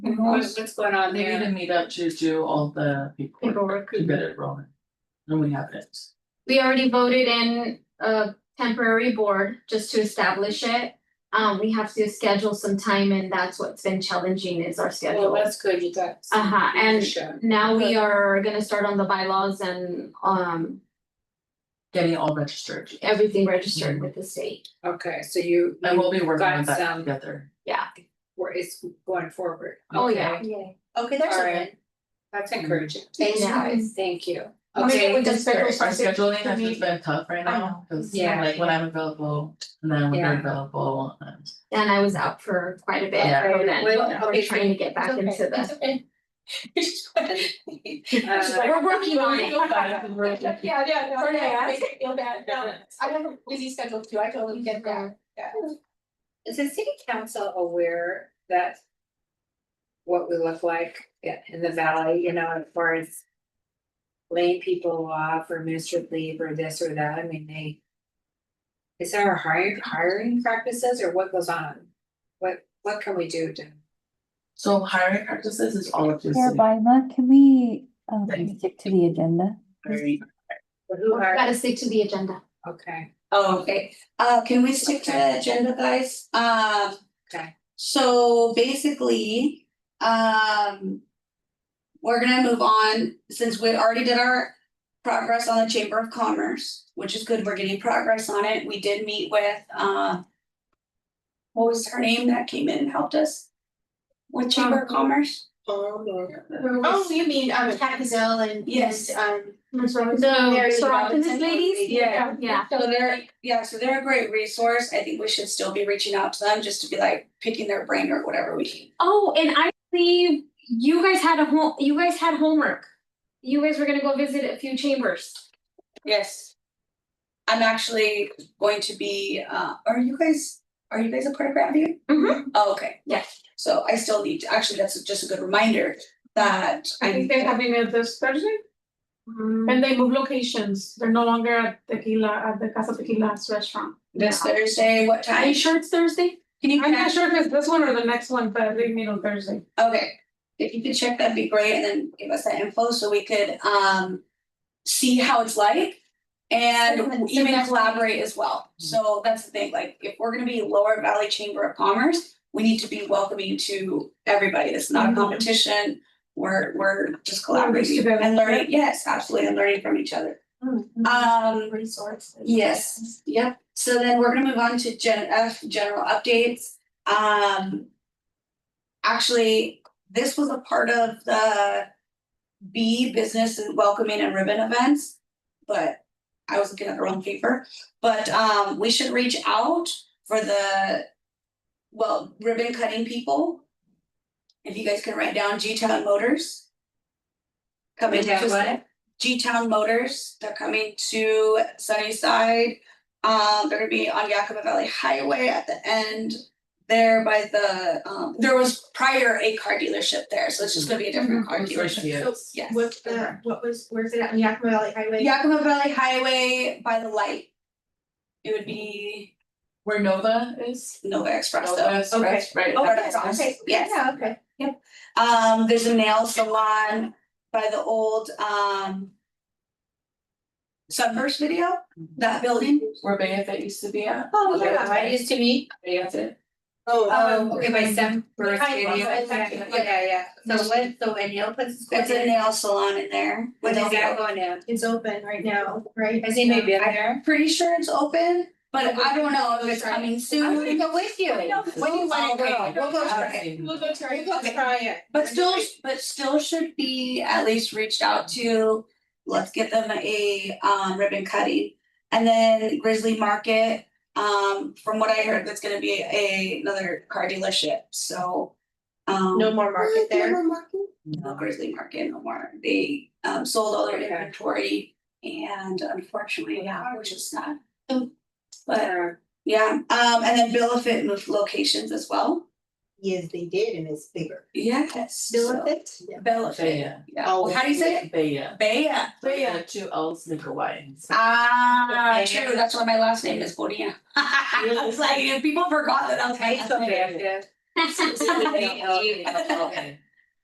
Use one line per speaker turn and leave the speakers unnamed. Mm-hmm.
What- What's going on
Uh, They need
there?
to meet up to do all the people
Paperwork.
to get it rolling. And we have it.
We already voted in a temporary board just to establish it. Um, we have to schedule some time and that's what's been challenging is our
Well,
schedule.
that's good, you got. some
Uh-huh, and
leadership.
now we are gonna start on the bylaws and um
Getting all registered.
everything registered with the state.
Okay, so you,
And we'll
you
be working on
Got
that
some.
together.
were, it's going forward.
Oh, yeah.
Okay,
Okay, there's
All
a
right.
win.
That's encouraging.
Thank you
Mm-hmm. Yeah.
guys.
Thank you.
Oh, yeah,
Okay,
we just scheduled
Our scheduling has
me-
just been tough right
I
now, because
Yeah.
like when I'm available, and then when
Yeah.
you're available, and
And I was out for quite a bit,
Yeah.
so then
Well,
we're
okay,
trying to get back
It's
into
okay.
the,
It's okay. She's
uh,
like,
we're working on it.
feel bad. Yeah, yeah, no,
Sorry, I
no,
asked.
I feel bad, no, I have a busy schedule too, I totally get that, yeah.
Is the city council aware that what we look like i- in the valley, you know, as far as laying people off or administrative leave or this or that, I mean, they is there hiring, hiring practices or what goes on? What, what can we do to?
so hiring practices is all of this.
Chair Byma, can we, um,
Thanks.
stick to the agenda?
Who
we
hire,
gotta stick to the agenda.
okay,
Oh, okay, uh, can we stick to the agenda, guys? Um,
okay,
so basically, um. We're gonna move on, since we already did our progress on the Chamber of Commerce, which is good, we're getting progress on it, we did meet with, uh. What was her name that came in and helped us? With Chamber of Commerce?
Oh, you mean um Cat Gazelle and
Yes.
and, um
So,
Mary
so
Robinson
optimist ladies?
Yeah.
Yeah,
So they're, yeah, so they're a great resource, I think we should still be reaching out to them, just to be like picking their brain or whatever we can.
oh, and I believe you guys had a home, you guys had homework. You guys were gonna go visit a few chambers.
Yes. I'm actually going to be, uh, are you guys, are you guys a part of Grandview?
Mhm.
Oh, okay.
Yes.
So I still need, to actually, that's just a good reminder that
I think they're having it this Thursday and they move locations. They're no longer at Tequila, at the Casa Tequila's restaurant.
this Thursday, what
Are
time?
you sure it's Thursday?
Can you,
I'm not sure if it's this one or the next one, but they meet on Thursday.
okay, if you could check, that'd be great, and then give us that info so we could, um, see how it's like and even collaborate as well. So that's the thing, like, if we're gonna be Lower Valley Chamber of Commerce, we need to be welcoming to everybody. It's not a
Mhm.
competition. We're, we're just
Learn
collaborating
together.
and learning, yes, absolutely, and learning from each other. Um,
Resources.
Yes, yep, so then we're gonna move on to gen F, general updates, um. Actually, this was a part of the B business and welcoming and ribbon events. But I was looking at the wrong paper, but um we should reach out for the. Well, ribbon cutting people. If you guys can write down G Town Motors. Coming
Write down
to
what?
G Town Motors, they're coming to Sunnyside. Um, they're gonna be on Yakima Valley Highway at the end there by the, um, there was prior a car dealership there, so it's just gonna be a different
Mm-hmm.
car dealership. Yes.
With the, what was, where's it at, Yakima Valley Highway?
Yakima Valley Highway by the light. It would be
Where Nova is.
Nova Express
Nova
though.
is right, right.
Oh,
that's-
that's awesome, yes.
Yeah, okay.
Um, there's a nail salon by the old, um. Sunburst video, that building.
Where Bayeth used to be at.
Oh,
Yeah, I used to meet,
Bayeth.
um, okay, by some birth
Hi,
video,
Mama.
yeah, yeah, yeah, so what, so a nail place is going
It's a
in,
nail salon in there.
when is
With
that
a-
going in? Um,
It's open right now, right?
Has anybody been there?
I'm pretty sure it's open, but I don't know if it's coming
I'm gonna
soon.
go with you. When you wanna go, we'll go.
Okay.
We'll go try it,
We'll go-
try it.
But still, but still should be at least reached out to, let's get them a um ribbon cutting. And then Grizzly Market, um from what I heard, that's gonna be a another car dealership, so. Um,
No more market there.
no Grizzly Market no more, they um sold all their
Okay.
inventory and unfortunately, yeah, which is sad. But
But
Yeah, um, and then Bill of Fit moved locations as well.
Yes, they did, and it's bigger.
Yes. so-
it?
Bill of Fit,
Bayeth.
yeah.
Oh,
Well, How do you say it?
Bayeth.
Baya.
Bayeth, two L's, Nickel Y.
Ah,
Baya.
true. That's why my last name is Bonilla. I was like, if people forgot that I was
I
my
used to
last
be
name.
active, Okay.